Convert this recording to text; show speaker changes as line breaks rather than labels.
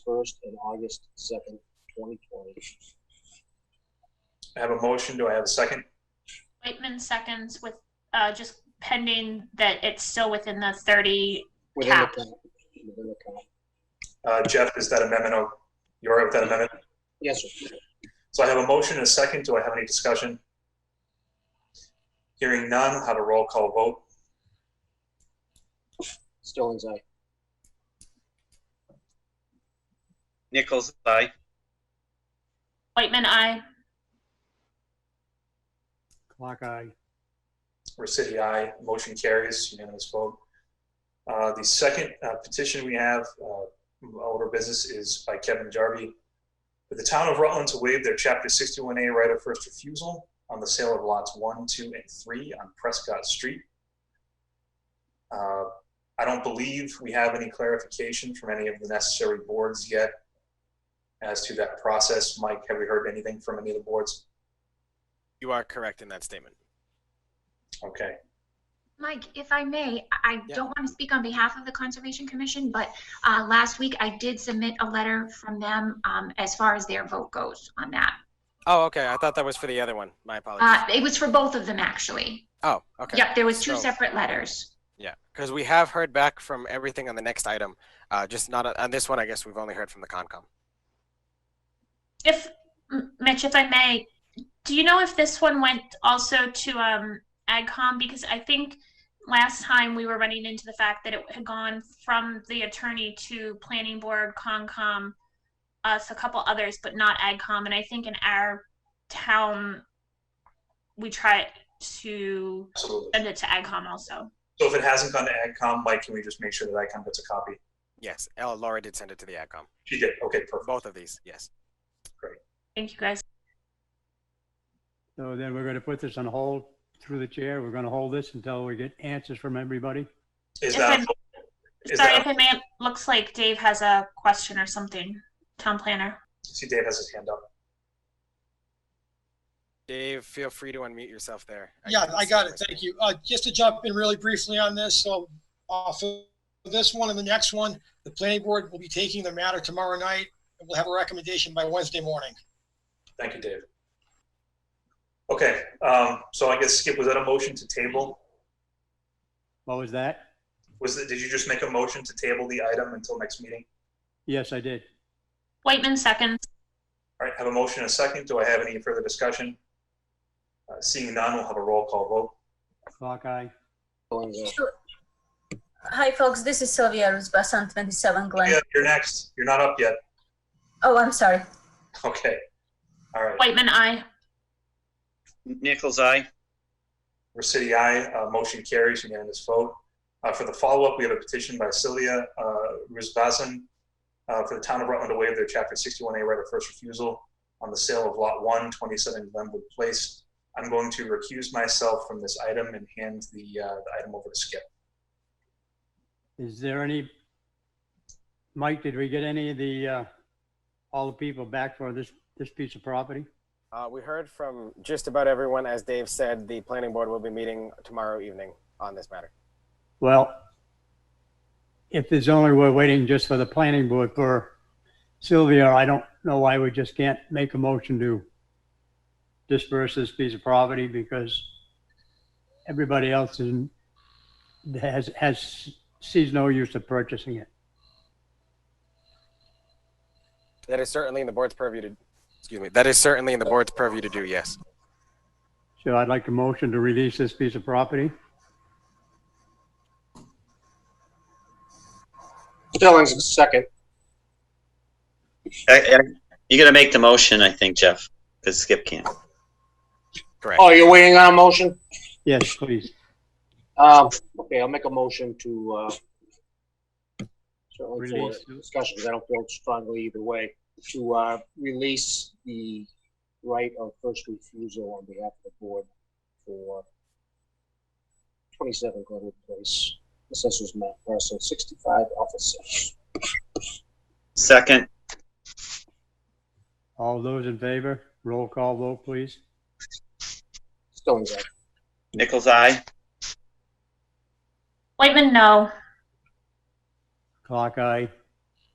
first and August second, twenty twenty.
I have a motion. Do I have a second?
Waitman seconds with, uh, just pending that it's still within the thirty,
Within the
Cap.
time, within the time.
Uh, Jeff, is that amendment? o- You're up with that amendment?
Yes, sir.
So I have a motion and a second. Do I have any discussion? Hearing none, I'll have a roll call vote.
Stillings, aye.
Nichols, aye.
Waitman, I.
Clock eye.
Recity, aye. Motion carries, unanimous vote. Uh, The second uh, petition we have, uh, older business, is by Kevin Jarvie. For the town of Rutland to waive their Chapter 61A right of first refusal on the sale of lots 1, 2, and 3 on Prescott Street. Uh, I don't believe we have any clarification from any of the necessary boards yet as to that process. Mike, have we heard anything from any of the boards?
You are correct in that statement.
Okay.
Mike, if I may, I I
Yeah.
don't want to speak on behalf of the Conservation Commission, but uh, last week I did submit a letter from them um, as far as their vote goes on that.
Oh, okay. I thought that was for the other one. My
Uh,
apologies.
It was for both of them, actually.
Oh, okay.
Yep, there was two
So-
separate letters.
Yeah, because we have heard back from everything on the next item. Uh, just not on, on this one. I guess we've only heard from the Concom.
If, M- Mitch, if I may, do you know if this one went also to, um, AgCom? Because I think last time we were running into the fact that it had gone from the attorney to planning board, Concom, us, a couple others, but not AgCom. And I think in our town, we try to
Absolutely.
send it to AgCom also.
So if it hasn't gone to AgCom, Mike, can we just make sure that AgCom gets a copy?
Yes, El Laura did send it to the AdCom.
She did. Okay, perfect.
Both of these. Yes.
Thank you, guys.
So then we're going to put this on hold through the chair. We're going to hold this until we get answers from everybody.
Is
If
that,
I'm-
is
Sorry,
that,
if I may, it looks like Dave has a question or something, town planner.
see Dave has his hand up.
Dave, feel free to unmute yourself there.
Yeah,
couldn't
I
see
got
your
it. Thank
screen.
you. Uh, just to jump in really briefly on this, so off of this one and the next one, the planning board will be taking the matter tomorrow night. and We'll have a recommendation by Wednesday morning.
Thank you, Dave. Okay, um, so I guess Skip, was that a motion to table?
What was that?
Was it, did you just make a motion to table the item until next meeting?
Yes, I did.
Whitman seconds.
All right, have a motion and a second. Do I have any further discussion? Uh, seeing none, we'll have a roll call vote.
Clock eye.
Stillings, aye.
Sure. Hi, folks. This is Sylvia Rusbus on 27 Glen.
Yeah, you're next. You're not up yet.
Oh, I'm sorry.
Okay. All right.
Whitman, I.
Nichols, aye.
Recity, aye. Uh, motion carries unanimous vote. Uh, for the follow-up, we have a petition by Celia, uh, Rusbazen, uh, for the town of Rutland to waive their chapter sixty-one A right of first refusal on the sale of lot one, twenty-seven Glenwood Place. I'm going to recuse myself from this item and hand the, uh, the item over to Skip.
Is there any? Mike, did we get any of the, uh, all the people back for this, this piece of property?
Uh, we heard from just about everyone. As Dave said, the planning board will be meeting tomorrow evening on this matter.
Well, if there's only, we're waiting just for the planning board for Sylvia, I don't know why we just can't make a motion to disperse this piece of property because everybody else is, has, has, sees no use of purchasing it.
That is certainly in the board's purview to. Excuse me. That is certainly in the board's purview to do. Yes.
So I'd like a motion to release this piece of property.
Stillings, second.
I- I- You're gonna make the motion, I think, Jeff, because Skip can't.
Correct.
Oh, you're waiting on a motion?
Yes, please.
Um, okay, I'll make a motion to, uh, certainly for
Release.
discussion, because I don't feel strongly either way, to, uh, release the right of first refusal on behalf of the board for twenty-seven Glenwood Place, assessors map parcel sixty-five, office six.
Second,
All those in favor, roll call vote, please.
Stillings, aye.
Nichols, aye.
Whitman, no.
Clock eye.